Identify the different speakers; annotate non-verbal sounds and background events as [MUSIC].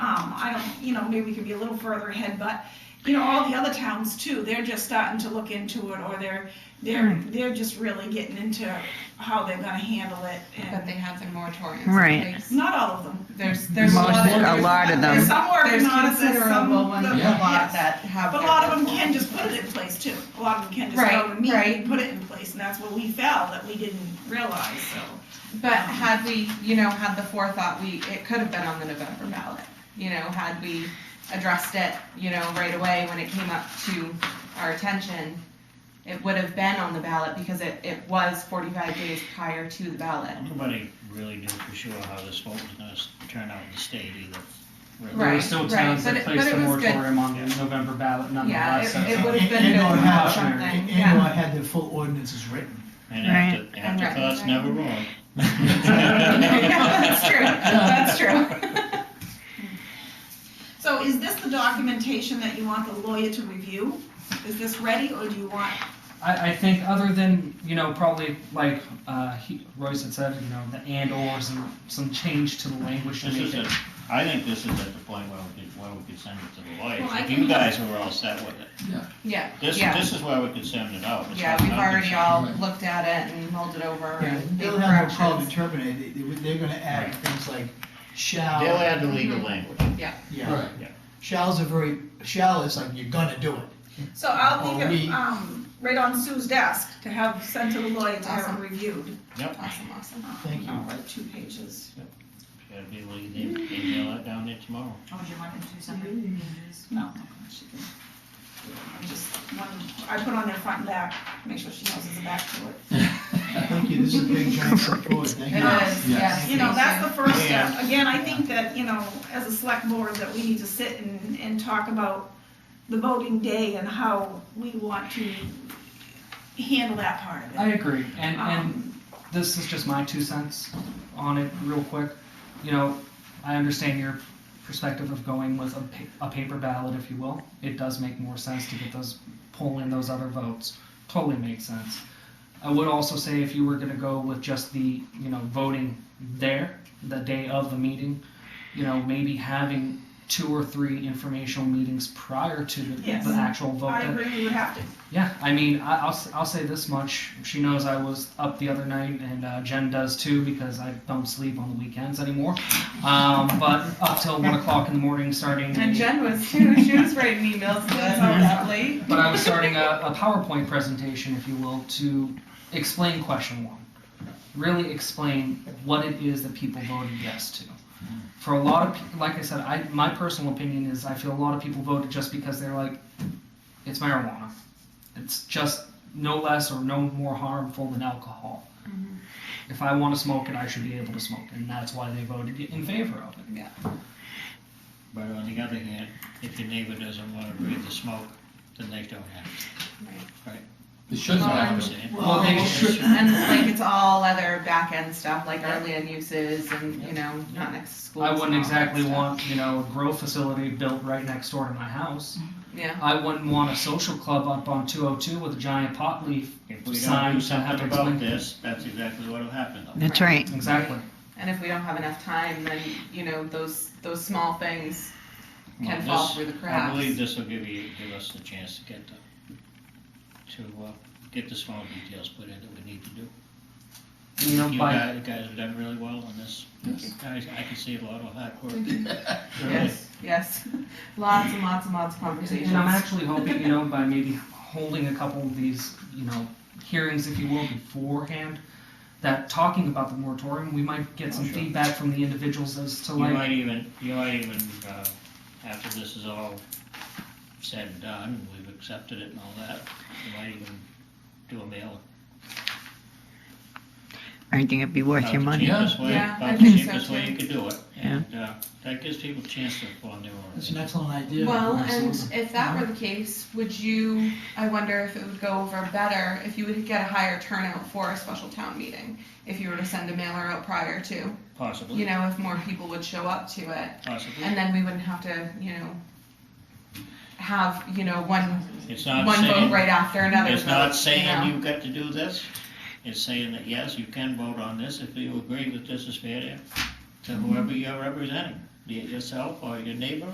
Speaker 1: Um, I don't, you know, maybe we could be a little further ahead, but, you know, all the other towns too, they're just starting to look into it, or they're, they're,
Speaker 2: Hmm.
Speaker 1: they're just really getting into how they're gonna handle it,
Speaker 2: But
Speaker 1: and,
Speaker 2: they have their moratoriums.
Speaker 3: Right.
Speaker 2: in place.
Speaker 1: not all of them.
Speaker 2: There's, there's a
Speaker 3: Most-
Speaker 2: lot
Speaker 3: a
Speaker 2: of,
Speaker 3: lot of
Speaker 1: There's
Speaker 3: them.
Speaker 1: some working
Speaker 2: there's
Speaker 1: on it, there's some.
Speaker 2: considerable ones, a
Speaker 1: yes.
Speaker 2: lot that have.
Speaker 1: But a
Speaker 2: their
Speaker 1: lot of them
Speaker 2: moratoriums.
Speaker 1: can just put it in place too. A lot of them can just
Speaker 2: Right,
Speaker 1: go to me
Speaker 2: right.
Speaker 1: and put it in place, and that's what we felt that we didn't realize, so.
Speaker 2: But had we, you know, had the forethought, we, it could have been on the November ballot. You know, had we addressed it, you know, right away when it came up to our attention, it would have been on the ballot because it, it was forty-five days prior to the ballot. [LAUGHS]
Speaker 4: Nobody really knew for sure how this vote was gonna s- turn out in the state either. really.
Speaker 5: There were
Speaker 2: Right.
Speaker 5: still towns
Speaker 2: but
Speaker 5: that
Speaker 2: it- but
Speaker 5: placed
Speaker 2: it
Speaker 5: a
Speaker 2: was good.
Speaker 5: moratorium on the November ballot
Speaker 2: Yeah,
Speaker 5: nonetheless.
Speaker 2: it, it would have been
Speaker 6: And
Speaker 2: good
Speaker 6: or
Speaker 2: to
Speaker 6: had,
Speaker 2: have
Speaker 6: and
Speaker 2: something,
Speaker 6: and or
Speaker 2: yeah.
Speaker 6: had the full ordinances written.
Speaker 4: And after, after
Speaker 2: Right.
Speaker 4: thought's never wrong. [LAUGHS]
Speaker 2: That's true, that's true. [LAUGHS]
Speaker 1: So is this the documentation that you want the lawyer to review? Is this ready, or do you want?
Speaker 5: I, I think other than, you know, probably like uh, he, Royce had said, you know, the and or some, some change to the language to
Speaker 4: This
Speaker 5: make
Speaker 4: is
Speaker 5: it.
Speaker 4: a, I think this is at the point where we could, where we could send it to the lawyers.
Speaker 1: Well, I
Speaker 4: If
Speaker 1: can-
Speaker 4: you guys were all set with it.
Speaker 2: Yeah,
Speaker 4: This,
Speaker 2: yeah,
Speaker 4: this is where we could send it out. It's
Speaker 2: yeah,
Speaker 4: not-
Speaker 2: we've
Speaker 4: not gonna-
Speaker 2: already all looked at it and mulled it over and made
Speaker 6: They'll have no problem
Speaker 2: corrections.
Speaker 6: determining, it. they, they- they're gonna add things like shall.
Speaker 4: They'll add the legal
Speaker 2: Mm-hmm.
Speaker 4: language.
Speaker 6: Yeah, shall's a very, shall is like, you're gonna do it.
Speaker 1: So I'll
Speaker 6: Or
Speaker 1: leave it
Speaker 6: we-
Speaker 1: um, right on Sue's desk to have sent to the lawyer to have it
Speaker 2: Awesome.
Speaker 1: reviewed.
Speaker 2: Awesome, awesome.
Speaker 6: Thank you.
Speaker 1: Oh, like two pages.
Speaker 4: Gotta be able to e- email that down there tomorrow.
Speaker 7: Oh, do you want them to do something?
Speaker 1: No. she can- I just wanted- I put on their front and back, make sure she knows it's a back to it.
Speaker 6: Thank you, this is a big giant step forward, thank
Speaker 2: It
Speaker 6: you.
Speaker 2: is, yes.
Speaker 1: You know, that's the first step.
Speaker 4: Yeah.
Speaker 1: Again, I think that, you know, as a select board, that we need to sit and, and talk about the voting day and how we want to handle that part of it.
Speaker 5: I agree. And, and
Speaker 1: Um,
Speaker 5: this is just my two cents on it, real quick. You know, I understand your perspective of going with a, pa- a paper ballot, if you will. It does make more sense to get those pull in those other votes. Totally makes sense. I would also say if you were going to go with just the you know voting there the day of the meeting, you know maybe having two or three informational meetings prior to the,
Speaker 1: Yes.
Speaker 5: the actual vote.
Speaker 1: I
Speaker 5: that-
Speaker 1: agree, we would have to.
Speaker 5: yeah, I mean, I, I'll, s- I'll say this much. She knows I was up the other night, and uh, Jen does too, because I don't sleep on the weekends anymore. Um, but up till 1 o'clock in the morning, starting.
Speaker 2: And Jen was too, she was writing emails to us all that late.
Speaker 5: But I
Speaker 2: [LAUGHS]
Speaker 5: was starting a, a PowerPoint presentation, if you will, to explain question one. Really explain what it is that people voted yes to. For a lot of, peo- like I said, I, my personal opinion is I feel a lot of people voted just because they're like, it's marijuana. It's just no less or no more harmful than alcohol. If I want to smoke it, I should be able to smoke it, and that's why they voted in favor of it.
Speaker 4: But on the other hand, if your neighbor doesn't wanna breathe the smoke, then they don't have
Speaker 8: It shouldn't
Speaker 4: to.
Speaker 8: happen.
Speaker 5: Well, they should-
Speaker 2: And it's like, it's all other back end stuff, like our land uses and, you know, not next to schools.
Speaker 5: I
Speaker 2: and
Speaker 5: wouldn't
Speaker 2: all that
Speaker 5: exactly
Speaker 2: stuff.
Speaker 5: want, you know, a grow facility built right next door to my house.
Speaker 2: Yeah,
Speaker 5: I wouldn't want a social club up on 202 with a giant pot leaf.
Speaker 4: If we don't do
Speaker 5: Signs and have to
Speaker 4: something about
Speaker 5: explain.
Speaker 4: this, that's exactly what'll happen though.
Speaker 3: That's right.
Speaker 2: Mm-hmm.
Speaker 5: Exactly.
Speaker 2: and if we don't have enough time, then, you know, those, those small things
Speaker 4: Well,
Speaker 2: can fall
Speaker 4: this-
Speaker 2: through the
Speaker 4: I
Speaker 2: cracks.
Speaker 4: believe this will give you, give us the chance to get the, to, uh, get the small details put in that we need to do.
Speaker 5: You know,
Speaker 4: You
Speaker 5: by,
Speaker 4: guys, you guys have done really well on this. Guys, I can see a lot of hard work. [LAUGHS] Really.
Speaker 2: Yes, yes, [LAUGHS] lots and lots and lots of
Speaker 5: and I'm
Speaker 2: conversations.
Speaker 5: actually hoping, you know, by maybe holding a couple of these, you know, hearings, if you will, beforehand, that talking about the moratorium, we might get some
Speaker 4: Oh, sure.
Speaker 5: feedback from the individuals as to
Speaker 4: You
Speaker 5: like,
Speaker 4: might even, you might even, uh, after this is all said and done, we've accepted it and all that, you might even do a mail.
Speaker 3: I think it'd be worth
Speaker 4: Uh,
Speaker 3: your money.
Speaker 4: About the cheapest way,
Speaker 2: Yeah, I
Speaker 4: about the
Speaker 2: think so
Speaker 4: cheapest way
Speaker 2: too.
Speaker 4: you could do it.
Speaker 3: Yeah.
Speaker 4: And, uh, that gives people a chance to form their own.
Speaker 6: That's an excellent idea.
Speaker 2: Well, and
Speaker 6: Absolutely.
Speaker 2: if that were the case, would you, I wonder if it would go over better if you would get a higher turnout for a special town meeting? If you were to send a mailer out prior to, you
Speaker 4: Possibly,
Speaker 2: know, if more people would show up to it.
Speaker 4: possibly.
Speaker 2: And then we wouldn't have to, you know, have, you know, one,
Speaker 4: It's not
Speaker 2: one vote
Speaker 4: saying,
Speaker 2: right after another.
Speaker 4: it's not
Speaker 2: vote,
Speaker 4: saying
Speaker 2: know.
Speaker 4: you've got to do this. It's saying that, yes, you can vote on this if you agree that this is fair to- to whoever you're representing, be it yourself or your neighbor